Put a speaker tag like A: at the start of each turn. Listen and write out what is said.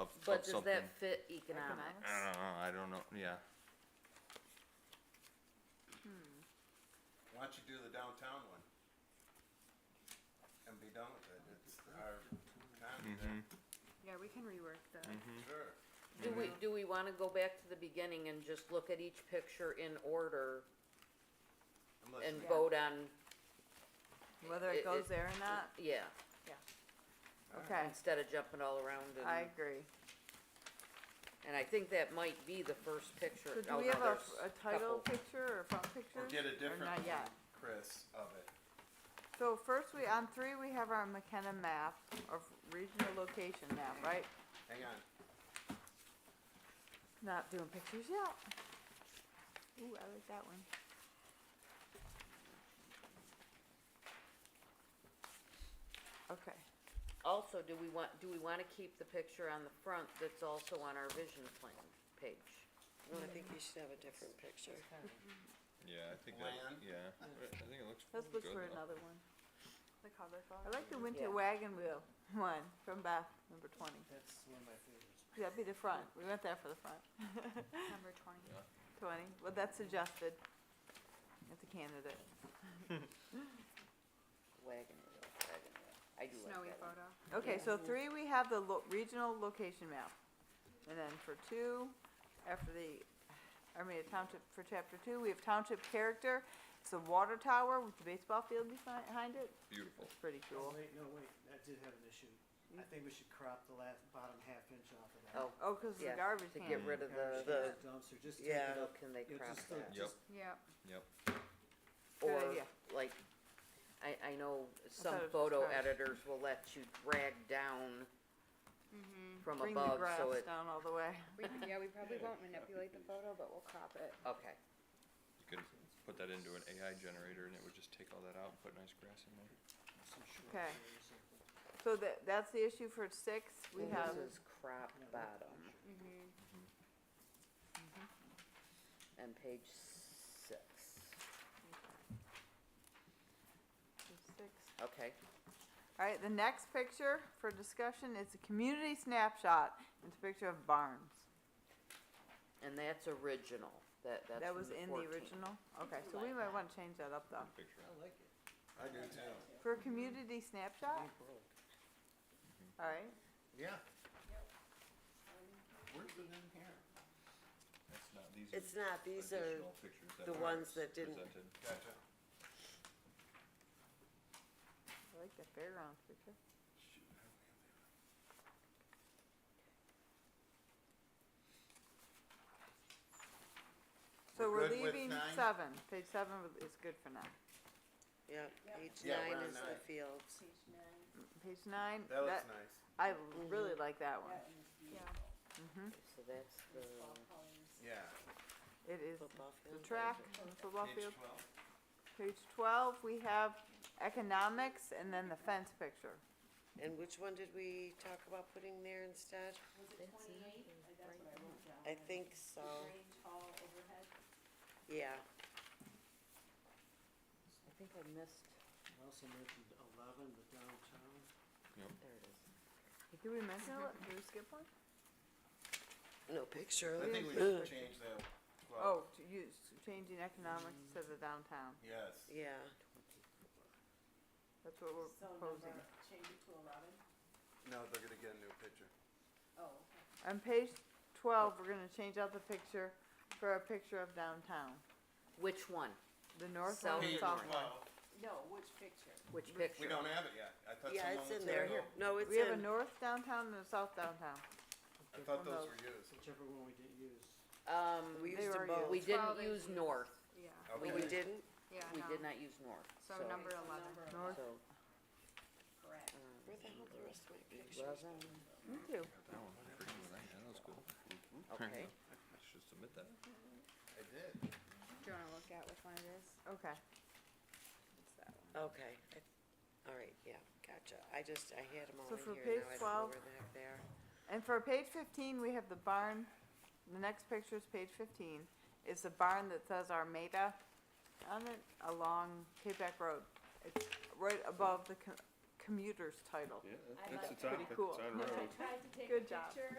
A: something.
B: Does that fit economics?
A: I don't know, I don't know, yeah,
C: Why don't you do the downtown one? And be done with it, it's our time there,
D: Yeah, we can rework the,
A: Mm-hmm.
C: sure.
B: Do we, do we wanna go back to the beginning and just look at each picture in order
C: Unless
B: and
C: you-
B: vote on,
A: Mm.
D: whether
B: It- it-
D: it goes there or not,
B: yeah,
C: uh,
D: okay,
B: instead of jumping all around
D: I
B: and,
D: agree.
B: and I think that might be the first picture.
D: So do
B: Oh,
D: we
B: no,
D: have a,
B: there's
D: a
B: couple.
D: title picture or front picture?
C: Or get a different
D: not
C: one,
D: yet.
C: Chris, of it.
D: So first we, on three, we have our McKenna map of regional location map, right?
C: Hang on,
D: Not doing pictures yet. Ooh, I like that one. Okay,
B: Also, do we want, do we wanna keep the picture on the front that's also on our vision plan page?
E: No, I think you should have a different picture.
A: yeah, I think that,
C: Land.
A: yeah, I think it looks good
D: let's look for
A: enough.
D: another one.
E: The color
D: I like the winter
B: Yeah.
D: wagon wheel one from Beth, number twenty.
F: That's one of my favorites.
D: That'd be the front. We went there for the front.
E: Number twenty.
D: Twenty. Well, that's suggested. It's a candidate.
B: Wagon wheel, wagon wheel. I do
E: Snowy
B: like that one.
E: photo.
D: Okay,
B: Yeah.
D: so three, we have the lo- regional location map. And then for two, after the, I mean, township, for chapter two, we have township character. It's a water tower with the baseball field behind behind it.
A: Beautiful.
D: Pretty cool.
F: Wait, no, wait, that did have an issue. I think we should crop the last, bottom half inch off of that.
B: Oh,
D: Oh, 'cause it's
B: yeah,
D: a garbage
B: to get
D: can.
B: rid of the,
F: Garbage
B: the,
F: can, Dumpster, just take
B: yeah,
F: it up.
B: can they
F: You know,
B: crop
F: just, uh,
B: that?
A: Yep,
F: just-
E: Yep.
A: yep,
D: Good
B: Or,
D: idea.
B: like, I, I know some
D: thought it was
B: photo
D: just cars.
B: editors will let you drag down
E: Mm-hmm.
B: from
D: Mm-hmm. Bring the
B: above,
D: grass
B: so it,
D: down all the way.
E: We, yeah, we probably won't manipulate the photo, but we'll crop it.
B: okay,
A: you could put that into an AI generator and it would just take all that out and put nice grass in there.
F: some short
D: Okay.
F: stories or something.
D: So that, that's the issue for six. We
B: And
D: have,
B: this is crop bottom
E: Mm-hmm.
B: and page six,
D: six.
B: okay,
D: Alright, the next picture for discussion is a community snapshot. It's a picture of Barnes.
B: and that's original, that, that's
D: That was
B: from
D: in the
B: 14.
D: original? Okay, so we might wanna change that up though.
A: Picture.
F: I like it.
C: I do too.
D: For a community snapshot,
F: Ain't broke.
D: alright,
C: Yeah. Where's it in here?
A: That's not, these
G: It's
A: are
G: not, these are
A: additional pictures that
G: the
A: were
G: ones that didn't-
A: presented.
C: Gotcha.
D: I like the fairgrounds picture. So we're
C: We're good with
D: leaving
C: nine?
D: seven, page seven was- is good for now.
G: Yep, page
C: Yeah, we're
G: nine
C: on
G: is the
C: nine.
G: fields.
D: Page nine,
C: That
D: that,
C: looks nice.
D: I really like that one.
E: Yeah.
B: So that's the.
C: Yeah.
D: It is
G: Football
D: the
G: field.
D: track, the football
C: Page
D: field.
C: twelve.
D: Page twelve, we have economics and then the fence picture.
G: And which one did we talk about putting there instead? I think so, yeah.
B: I think I missed,
F: I also mentioned eleven, the downtown.
B: there it is.
D: Did we mention it? Did we skip one?
G: No picture of
C: I think we
G: it.
C: should change that twelve.
D: Oh, to use, changing economics to the downtown.
C: Yes.
G: Yeah,
D: That's what we're proposing.
C: No, they're gonna get a new picture.
G: Oh,
D: On page twelve, we're gonna change out the picture for a picture of downtown,
B: Which one,
D: the north
B: South
D: one,
B: Page
D: and south one.
C: twelve.
B: which
C: We
B: picture?
C: don't have it yet. I thought
G: yeah,
C: someone
G: it's
C: was
G: in
C: gonna
G: there.
C: go.
G: No, it's
D: We have a
G: in,
D: north downtown and a south downtown.
C: I thought
D: One
C: those
D: of
C: were used.
F: Whichever one we didn't use.
B: Um,
G: we
D: they
G: used them
D: were
G: both.
B: we didn't
E: Twelve and
B: use
E: two.
B: north,
E: Yeah,
C: Okay.
G: We didn't?
E: yeah,
B: we
E: no.
B: did not use north,
E: So
B: so.
E: number eleven.
D: North,
B: So,
G: Where the hell the rest of my pictures?
B: eleven,
D: me too.
A: That one, I forget what I had, that was cool.
B: okay.
A: I should submit that.
C: I did.
E: Do you wanna look at which one it is?
D: Okay,
E: It's that one.
G: Okay, I- all right, yeah, gotcha. I just, I had them all
D: So
G: in
D: for
G: here,
D: page
G: now I don't know
D: 12.
G: where the heck they are.
D: and for page fifteen, we have the barn, the next picture is page fifteen. It's the barn that says Armada on it along Cape Back Road. It's right above the co- commuter's title.
A: Yeah,
D: Pretty cool.
A: road.
H: I tried to take
D: Good
H: a
D: job.
H: picture